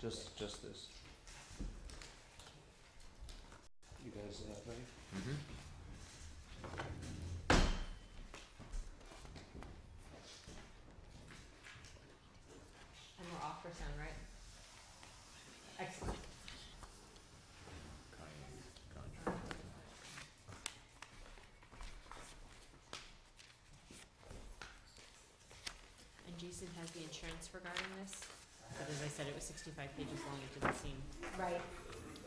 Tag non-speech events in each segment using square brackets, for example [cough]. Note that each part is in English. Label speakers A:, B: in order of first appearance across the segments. A: Just, just this. You guys have any?
B: And we're off for sound, right? Excellent. And Jason has the insurance regarding this, but as I said, it was sixty-five pages long, it didn't seem
C: Right,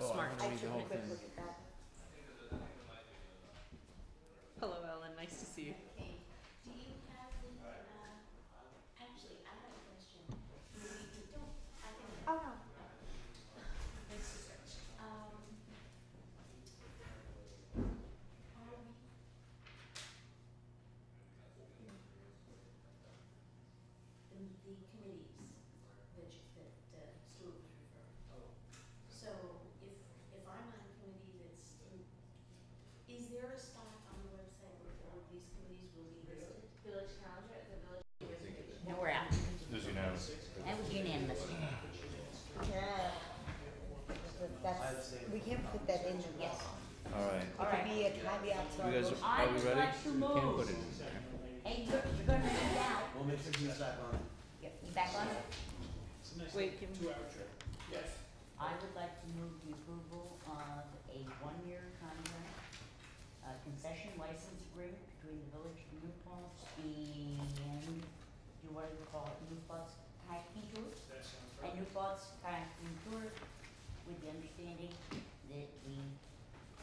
A: Oh,
B: smart.
C: I took a quick look at that.
B: Hello, Ellen, nice to see you.
C: Okay, do you have the, uh, actually, I have a question. Maybe you don't, I can. Oh, no. Um. are we- The, the committees that, you- that, uh, Stuart was referring to. So if, if I'm on a committee that's in is there a spot on the website where all of these committees will be listed? Village calendar, the village reservation.
D: No, we're out.
E: There's unanimous.
D: That was unanimous.
F: Yeah. That's, we can put that in the law.
A: Alright,
F: It could be a caveat to our
A: you guys,
F: motion.
A: are we
D: I'd
A: ready?
D: like to
A: We can
D: move.
A: put it in there.
D: Hey, you're, you're gonna leave out.
G: We'll make sure he's back on.
D: Yep, you back on it?
B: Wait, can we?
D: I would like to move the approval of a one-year contract, uh, concession license agreement between the village of New Paltz and, you want to call it New Paltz Kayaking Tour? And New Paltz Kayaking Tour, with the understanding that the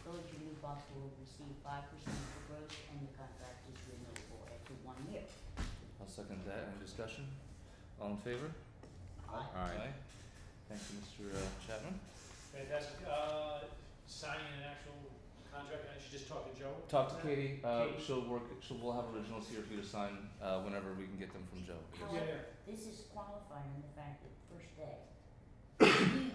D: village of New Paltz will receive five percent of the gross and the contract is renewable after one year.
A: I'll second that, any discussion? All in favor?
D: I-
A: Aye. Thank you, Mr. uh, Chapman.
H: Fantastic. Uh, signing an actual contract, I should just talk to Joe?
A: Talk to Katie, uh,
H: Katie.
A: she'll work, she'll, we'll have originals here for you to sign, uh, whenever we can get them from Joe.
H: Yeah,
D: However,
H: yeah.
D: This is qualifying in the fact that the first day, you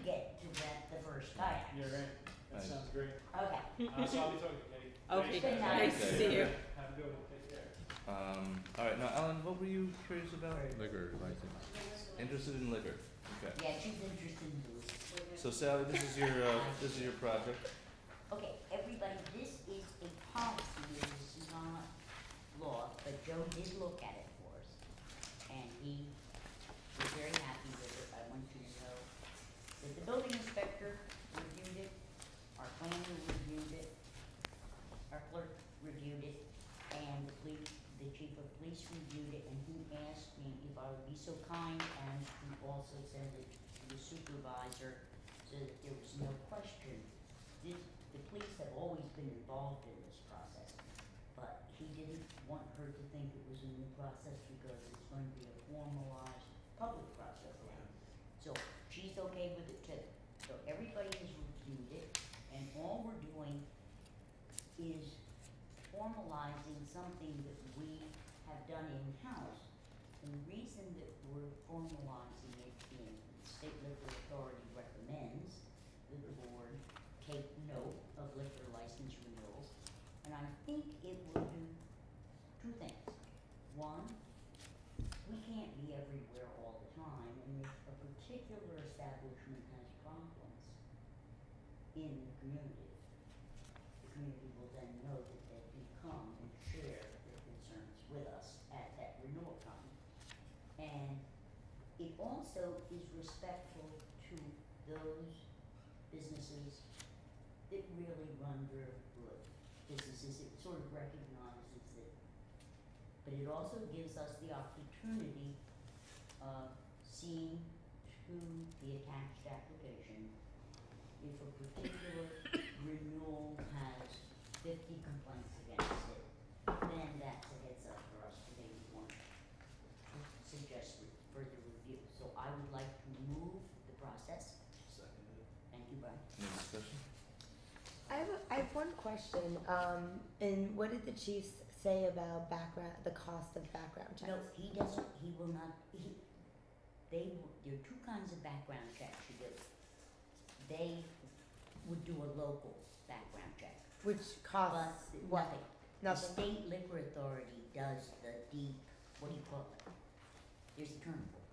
D: get to rent the first kayak.
H: Yeah, right. That
A: Nice.
H: sounds
B: [laughs]
H: great.
D: Okay,
H: Uh, so I'll be talking to Katie.
B: Okay,
H: Thanks, guys.
B: nice to
A: Okay.
B: see you.
H: Have a good one. Take care.
A: Um, alright, now Alan, what were you curious about?
E: Liquor license.
A: Interested in liquor, okay.
D: yeah, she's interested in this.
A: So Sally, this is your, uh, this is your project.
D: Okay, everybody, this is a policy, this is not law, but Joe did look at it for us. And he was very happy with it, I want you to know that the building inspector reviewed it, our planner reviewed it, our clerk reviewed it, and the police, the chief of police reviewed it, and he asked me if I would be so kind as to also send it to the supervisor so that there was no question this, the police have always been involved in this process, but he didn't want her to think it was a new process because it's going to be a formalized public process now. So she's okay with it too. So everybody has reviewed it, and all we're doing is formalizing something that we have done in-house. And the reason that we're formalizing it in the state liquor authority recommends that the board take note of liquor license renewals, and I think it will do two things. One, we can't be everywhere all the time, and if a particular establishment has problems in the community, the community will then know that they can come and share their concerns with us at that renewal time. And it also is respectful to those businesses that really run their good businesses, it sort of recognizes it. But it also gives us the opportunity of seeing through the attached application if a particular renewal has fifty complaints against it, then that's a heads up for us to maybe want to suggest re- further review. So I would like to move the process. Thank you, Brian.
A: Any discussion?
F: I have, a- I have one question, um, and what did the chiefs say about background, the cost of background checks?
D: No, he doesn't, he will not, he, they, w- there are two kinds of background checks you do. They would do a local background check,
F: Which
D: but
F: costs
D: nothing.
F: what?
D: The
F: Nothing.
D: state liquor authority does the deep, what do you call it? There's a term for it.